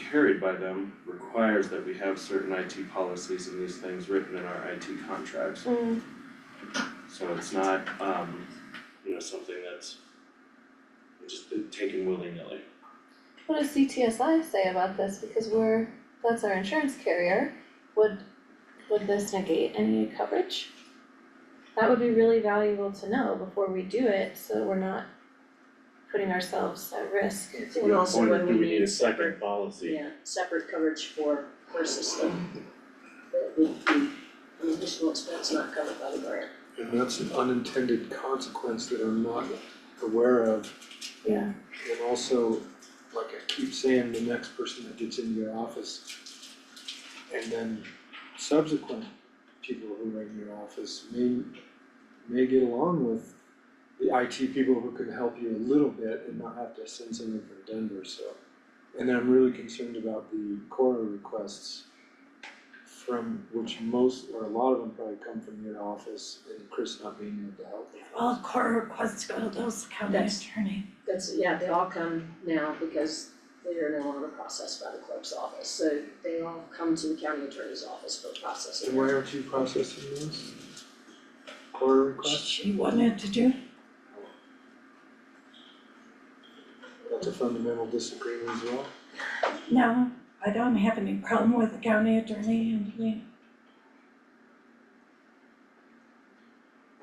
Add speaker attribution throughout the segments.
Speaker 1: carried by them requires that we have certain IT policies and these things written in our IT contracts.
Speaker 2: Mm,
Speaker 1: So it's not, um, you know, something that's just taken willy-nilly.
Speaker 2: what does CTSI say about this, because we're, that's our insurance carrier, would, would this negate any coverage? That would be really valuable to know before we do it, so we're not putting ourselves at risk.
Speaker 3: And also
Speaker 1: Wonder,
Speaker 3: when
Speaker 1: do
Speaker 3: we
Speaker 1: we need a
Speaker 3: need
Speaker 1: second
Speaker 3: separate,
Speaker 1: policy?
Speaker 3: yeah, separate coverage for her system. That would be an additional expense not covered by the grant.
Speaker 4: And that's an unintended consequence that I'm not aware of.
Speaker 2: Yeah.
Speaker 4: And also, like I keep saying, the next person that gets into your office and then subsequent people who are in your office may, may get along with the IT people who can help you a little bit and not have to send someone from Denver, so. And then I'm really concerned about the Cora requests from which most, or a lot of them probably come from your office and Chris not being able to help them.
Speaker 5: All court requests go to those county
Speaker 3: That's-
Speaker 5: attorney.
Speaker 3: That's, yeah, they all come now because they are no longer processed by the clerk's office, so they all come to the county attorney's office for processing.
Speaker 4: And why aren't you processing those? Cora requests?
Speaker 5: She wanted to do,
Speaker 4: That's a fundamental disagreement as well.
Speaker 5: no, I don't have any problem with the county attorney and we,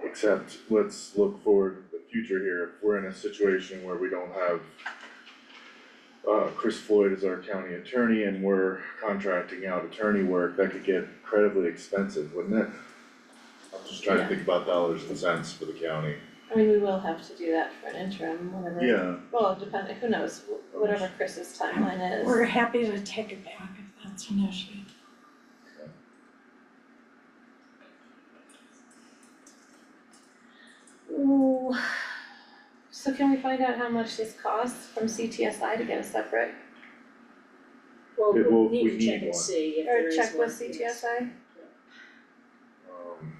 Speaker 6: Except, let's look forward to the future here, if we're in a situation where we don't have uh, Chris Floyd as our county attorney and we're contracting out attorney work, that could get incredibly expensive, wouldn't it? I'm just trying to think about dollars and cents for the county.
Speaker 2: I mean, we will have to do that for an interim, whatever.
Speaker 6: Yeah,
Speaker 2: Well, depending, who knows, wh- whatever Chris's timeline is.
Speaker 5: we're happy to take it back if that's an issue.
Speaker 2: Ooh. So can we find out how much this costs from CTSI to get a separate,
Speaker 3: Well,
Speaker 6: Yeah, well,
Speaker 3: we'll
Speaker 6: if
Speaker 3: need
Speaker 6: we
Speaker 3: to check
Speaker 6: need
Speaker 3: and
Speaker 6: one.
Speaker 3: see if there
Speaker 2: or
Speaker 3: is
Speaker 2: check
Speaker 3: one,
Speaker 2: with
Speaker 3: yes.
Speaker 2: CTSI?
Speaker 6: um,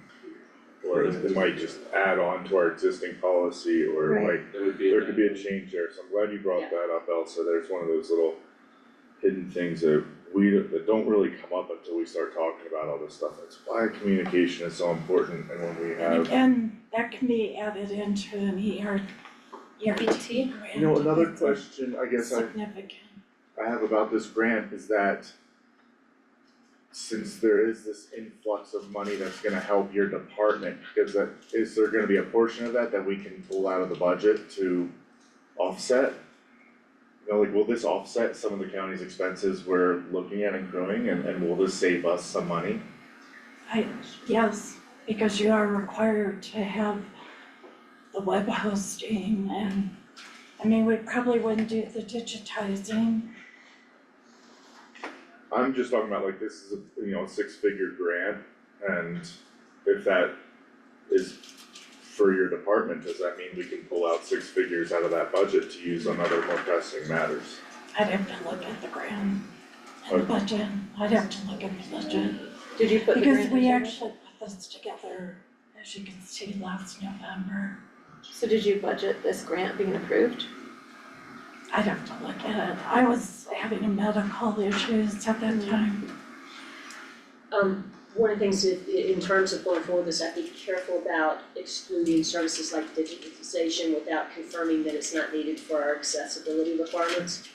Speaker 6: or it might just add on to our existing policy or
Speaker 2: Right.
Speaker 6: like
Speaker 1: That would be.
Speaker 6: There could be a change there, so I'm glad you brought
Speaker 3: Yeah.
Speaker 6: that up, Elsa, there's one of those little hidden things that we, that don't really come up until we start talking about all this stuff, that's why communication is so important, and when we
Speaker 5: And
Speaker 6: have,
Speaker 5: again, that can be added into an ER, ERT
Speaker 2: BT?
Speaker 5: grant.
Speaker 6: you know, another
Speaker 5: if it's
Speaker 6: question, I guess I,
Speaker 5: Significant,
Speaker 6: I have about this grant is that since there is this influx of money that's gonna help your department, is that, is there gonna be a portion of that that we can pull out of the budget to offset? You know, like, will this offset some of the county's expenses we're looking at accruing and, and will this save us some money?
Speaker 5: yes, because you are required to have the web hosting and, I mean, we probably wouldn't do the digitizing
Speaker 6: I'm just talking about like, this is a, you know, six-figure grant and if that is for your department, does that mean we can pull out six figures out of that budget to use on other more pressing matters?
Speaker 5: I'd have to look at the grant and the budget, I'd have to look at the budget,
Speaker 2: Did you put the grant
Speaker 5: because we
Speaker 2: agenda?
Speaker 5: actually put this together, as you can see, last November.
Speaker 2: So did you budget this grant being approved?
Speaker 5: I'd have to look at it, I was having medical issues at that time,
Speaker 3: Um, one of the things that, i- in terms of going forward, is I have to be careful about excluding services like digitization without confirming that it's not needed for our accessibility requirements.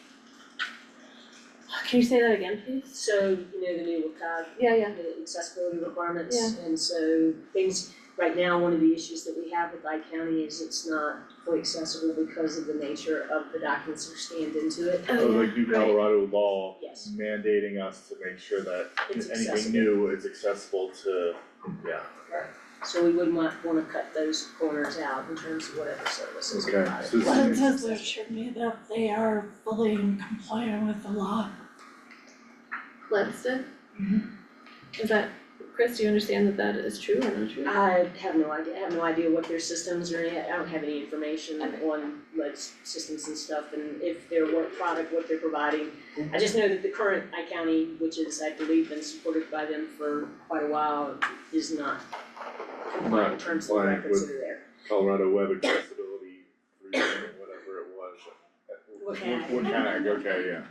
Speaker 2: Can you say that again, please?
Speaker 3: So, you know, the new WCAG
Speaker 2: Yeah, yeah.
Speaker 3: the accessibility requirements, and so things, right now, one of the issues that we have with I County is it's not fully accessible because of the nature of the documents that are scanned into it.
Speaker 6: Or like new
Speaker 2: right.
Speaker 6: Colorado law
Speaker 3: Oh, Yes.
Speaker 6: mandating us to make sure that
Speaker 3: It's
Speaker 6: anything
Speaker 3: accessible.
Speaker 6: new is accessible to, yeah.
Speaker 3: So we would not wanna cut those corners out in terms of whatever services are
Speaker 6: Okay, so
Speaker 3: provided.
Speaker 6: this
Speaker 5: but it does assure me that they are fully compliant with the law.
Speaker 2: Lanston? Is that, Chris, do you understand that that is true or not true?
Speaker 3: I have no idea, I have no idea what their systems are, I don't have any information
Speaker 2: Okay.
Speaker 3: on like s- systems and stuff and if their work product, what they're providing. I just know that the current I-County, which is, I believe, been supported by them for quite a while, is not compliant in terms of the
Speaker 6: compliant
Speaker 3: records
Speaker 6: with-
Speaker 3: that are there.
Speaker 6: Colorado Web Accessibility, Review, whatever it was.
Speaker 3: WCAG.
Speaker 6: WCAG, okay, yeah.